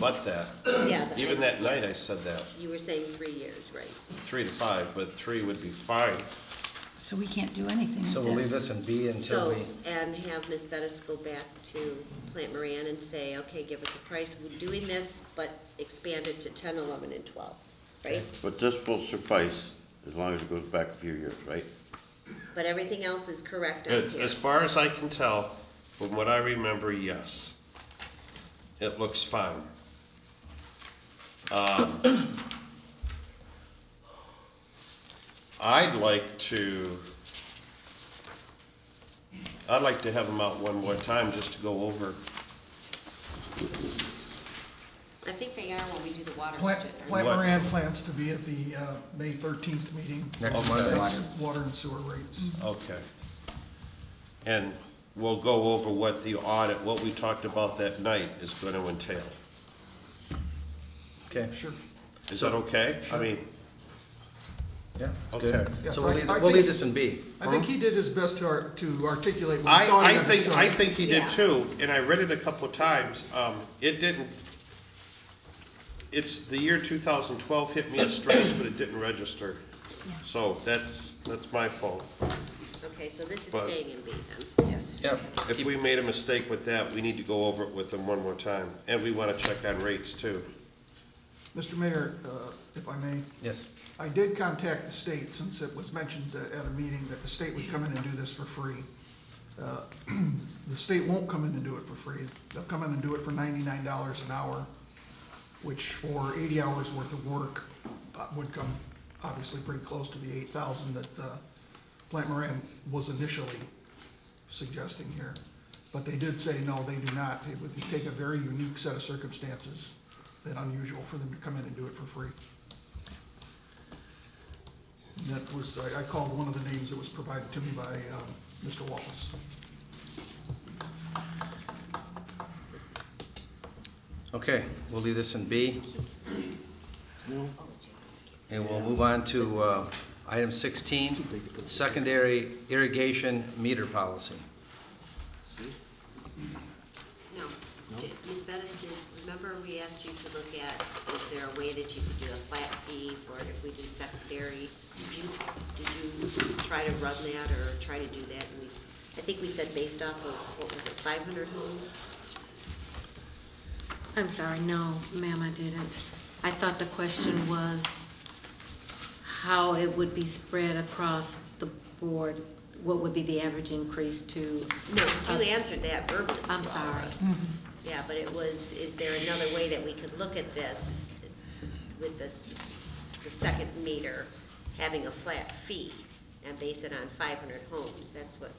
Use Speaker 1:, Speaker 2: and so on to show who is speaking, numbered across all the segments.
Speaker 1: But that,
Speaker 2: Yeah, but
Speaker 1: even
Speaker 2: I-
Speaker 1: that night I said that,
Speaker 2: You were saying three years, right?
Speaker 1: three to five, but three would be fine.
Speaker 3: So we can't do anything
Speaker 4: So we'll
Speaker 3: with
Speaker 4: leave
Speaker 3: this.
Speaker 4: this in B until
Speaker 2: So,
Speaker 4: we,
Speaker 2: and have Ms. Bettis go back to Plant Moran and say, okay, give us a price, we're doing this, but expand it to ten, eleven, and twelve, right?
Speaker 5: But this will suffice as long as it goes back a few years, right?
Speaker 2: But everything else is correct on
Speaker 1: As,
Speaker 2: here.
Speaker 1: as far as I can tell, from what I remember, yes. It looks fine. Um, I'd like to, I'd like to have them out one more time just to go over.
Speaker 2: I think they are when we do the water
Speaker 6: Plant,
Speaker 2: budget. aren't
Speaker 6: Plant
Speaker 1: What?
Speaker 6: Moran plans to be at the uh, May 13th meeting.
Speaker 4: Next
Speaker 6: to
Speaker 4: Monday.
Speaker 6: discuss Water and sewer rates.
Speaker 1: Okay. And we'll go over what the audit, what we talked about that night is going to entail.
Speaker 4: okay,
Speaker 6: Sure.
Speaker 1: Is that okay? I mean,
Speaker 4: yeah, it's good.
Speaker 1: Okay.
Speaker 6: Yeah,
Speaker 4: So
Speaker 6: so
Speaker 4: we'll
Speaker 6: I-
Speaker 4: leave,
Speaker 6: I
Speaker 4: we'll leave
Speaker 6: think-
Speaker 4: this in B.
Speaker 6: I think he did his best to ar- to articulate what he thought he
Speaker 1: I, I think, I
Speaker 6: understood.
Speaker 1: think he did
Speaker 2: Yeah.
Speaker 1: too, and I read it a couple of times, um, it didn't, it's, the year two thousand twelve hit me as strange, but it didn't register. So that's, that's my fault.
Speaker 2: we? Okay, so this is
Speaker 1: But-
Speaker 2: staying in B then.
Speaker 3: Yes.
Speaker 4: Yep,
Speaker 1: If we made a mistake with that, we need to go over it with them one more time, and we wanna check on rates too.
Speaker 6: Mr. Mayor, uh, if I may,
Speaker 4: yes.
Speaker 6: I did contact the state since it was mentioned uh, at a meeting that the state would come in and do this for free. Uh, The state won't come in and do it for free. They'll come in and do it for ninety-nine dollars an hour, which for eighty hours worth of work uh, would come obviously pretty close to the eight thousand that uh, Plant Moran was initially suggesting here. But they did say, no, they do not. It would take a very unique set of circumstances and unusual for them to come in and do it for free. That was, I, I called one of the names that was provided to me by, um, Mr. Wallace.
Speaker 4: Okay, we'll leave this in B. And we'll move on to uh, item 16, secondary irrigation meter policy.
Speaker 2: No. Did- Ms. Bettis, did, remember we asked you to look at, is there a way that you could do a flat fee for if we do secondary? Did you, did you try to run that or try to do that? And we, I think we said based off of, what was it, five hundred homes?
Speaker 7: I'm sorry, no, ma'am, I didn't. I thought the question was how it would be spread across the board, what would be the average increase to?
Speaker 2: No, 'cause you answered that verbally. to all
Speaker 7: I'm
Speaker 2: of
Speaker 7: sorry. Mm-hmm.
Speaker 2: us. Yeah, but it was, is there another way that we could look at this with this, the second meter having a flat fee and base it on five hundred homes? That's what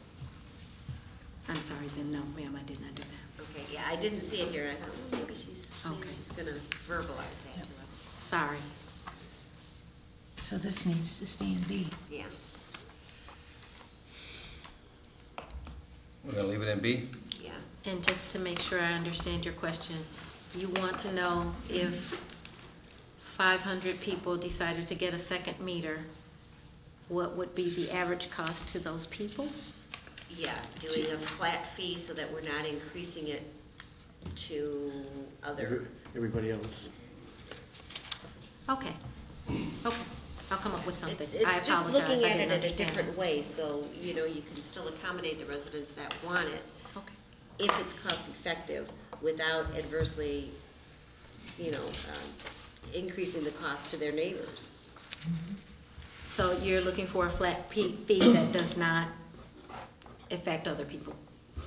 Speaker 7: I'm sorry, then, no, ma'am, I did not do that.
Speaker 2: Okay, yeah, I didn't see it here, I thought, well, maybe she's, maybe
Speaker 7: Okay.
Speaker 2: she's gonna verbalize that to us,
Speaker 7: Sorry.
Speaker 3: So this needs to stay in B.
Speaker 2: yeah.
Speaker 4: We're gonna leave it in B?
Speaker 2: Yeah,
Speaker 7: And just to make sure I understand your question, you want to know if 500 people decided to get a second meter, what would be the average cost to those people?
Speaker 2: yeah, doing a flat fee so that we're not increasing it to other,
Speaker 8: everybody else.
Speaker 7: Okay, okay, I'll come up with something.
Speaker 2: it's,
Speaker 7: I
Speaker 2: it's just
Speaker 7: apologize, I
Speaker 2: looking at it
Speaker 7: didn't
Speaker 2: in a
Speaker 7: understand.
Speaker 2: different way, so, you know, you can still accommodate the residents that want it,
Speaker 7: Okay,
Speaker 2: if it's cost effective, without adversely, you know, um, increasing the cost to their neighbors.
Speaker 7: so you're looking for a flat pe- fee that does not affect other people,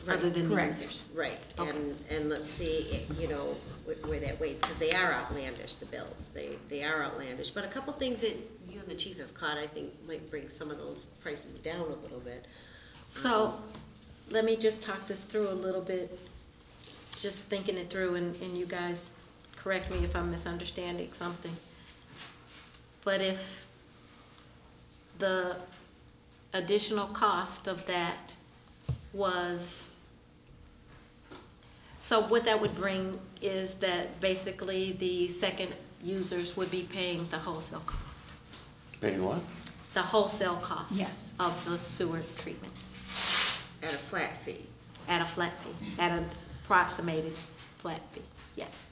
Speaker 7: other than the
Speaker 2: Correct.
Speaker 7: users?
Speaker 2: Right,
Speaker 7: Okay.
Speaker 2: and, and let's see, you know, wh- where that weighs, because they are outlandish, the bills, they, they are outlandish. But a couple things that you and the chief have caught, I think, might bring some of those prices down a little bit.
Speaker 7: So, let me just talk this through a little bit, just thinking it through, and, and you guys correct me if I'm misunderstanding something. But if the additional cost of that was, so what that would bring is that basically the second users would be paying the wholesale cost,
Speaker 5: Paying what?
Speaker 7: the wholesale cost
Speaker 3: Yes.
Speaker 7: of the sewer treatment
Speaker 2: At a flat fee,
Speaker 7: at a flat fee, at an approximated flat fee, yes.